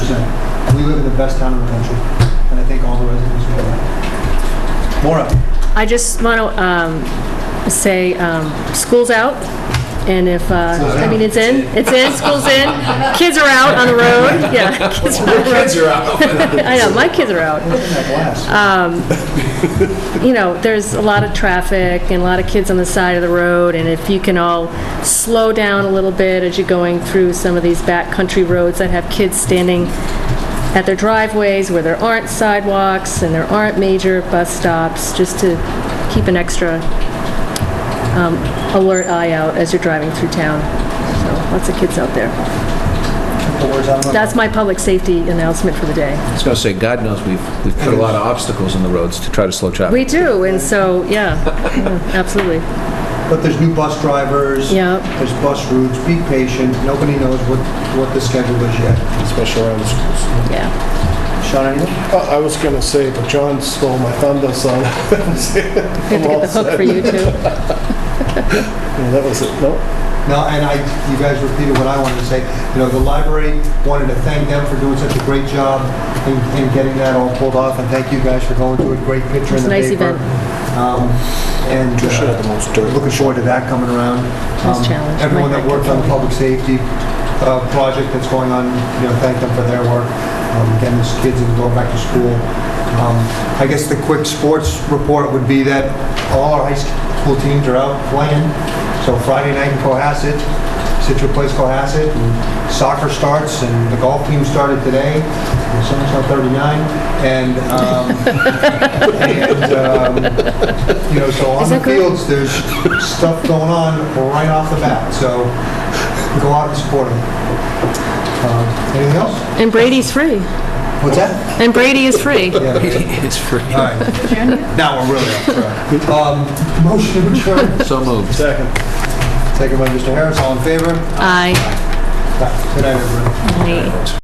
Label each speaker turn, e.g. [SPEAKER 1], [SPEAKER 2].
[SPEAKER 1] we live in the best town in the country, and I think all the residents know that. Maura,
[SPEAKER 2] I just want to say, um, school's out, and if, uh, I mean, it's in, it's in, school's in, kids are out on the road, yeah. kids are out.
[SPEAKER 3] Kids are out.
[SPEAKER 2] I know, my kids are out.
[SPEAKER 1] in that glass.
[SPEAKER 2] Uh, You know, there's a lot of traffic and a lot of kids on the side of the road, and if you can all slow down a little bit as you're going through some of these backcountry roads that have kids standing at their driveways where there aren't sidewalks and there aren't major bus stops, just to keep an extra um, alert eye out as you're driving through town. So lots of kids out there.
[SPEAKER 1] Took the words out of my mouth.
[SPEAKER 2] That's my public safety announcement for the day.
[SPEAKER 3] I was going to say, God knows we've, we've put a lot of obstacles in the roads to try to slow
[SPEAKER 2] We
[SPEAKER 3] traffic.
[SPEAKER 2] do, and so, yeah, yeah, absolutely.
[SPEAKER 1] But there's new bus drivers.
[SPEAKER 2] Yeah.
[SPEAKER 1] There's bus routes. Be patient. Nobody knows what, what the schedule is yet.
[SPEAKER 4] especially around the schools.
[SPEAKER 2] Yeah.
[SPEAKER 1] Sean, anything?
[SPEAKER 4] I I was going to say, but John stole my thunder, so
[SPEAKER 2] We have to get the hook for you, too.
[SPEAKER 4] Yeah, that was it. No,
[SPEAKER 1] No, and I, you guys repeated what I wanted to say. You know, the library wanted to thank them for doing such a great job in, in getting that all pulled off, and thank you guys for going to a great picture in
[SPEAKER 2] It's a
[SPEAKER 1] the
[SPEAKER 2] nice
[SPEAKER 1] paper.
[SPEAKER 2] event.
[SPEAKER 1] Um, And
[SPEAKER 4] we should have the
[SPEAKER 1] uh,
[SPEAKER 4] most dirt.
[SPEAKER 1] looking forward to that coming around.
[SPEAKER 2] Nice
[SPEAKER 1] Um,
[SPEAKER 2] challenge.
[SPEAKER 1] Everyone that
[SPEAKER 2] Might not
[SPEAKER 1] worked
[SPEAKER 2] get
[SPEAKER 1] on the
[SPEAKER 2] done.
[SPEAKER 1] public safety uh, project that's going on, you know, thank them for their work. Um, Again, these kids are going back to school. Um, I guess the quick sports report would be that all our high school teams are out playing. So Friday night in Cohasset, Situate plays Cohasset, and soccer starts, and the golf team started today, and someone's on 39, and, um, and, um, you know, so on
[SPEAKER 2] Is
[SPEAKER 1] the
[SPEAKER 2] that good?
[SPEAKER 1] fields, there's stuff going on right off the bat, so go out and support them. Um, Anything else?
[SPEAKER 2] And Brady's free.
[SPEAKER 1] What's that?
[SPEAKER 2] And Brady is free.
[SPEAKER 1] Yeah,
[SPEAKER 3] It's free.
[SPEAKER 1] all right. Now we're really off track. Um, Motion adjourned.
[SPEAKER 3] So moved.
[SPEAKER 4] Second.
[SPEAKER 1] Second by Mr. Harris, all in favor?
[SPEAKER 2] Aye.
[SPEAKER 1] Good night, everyone.
[SPEAKER 2] Aye.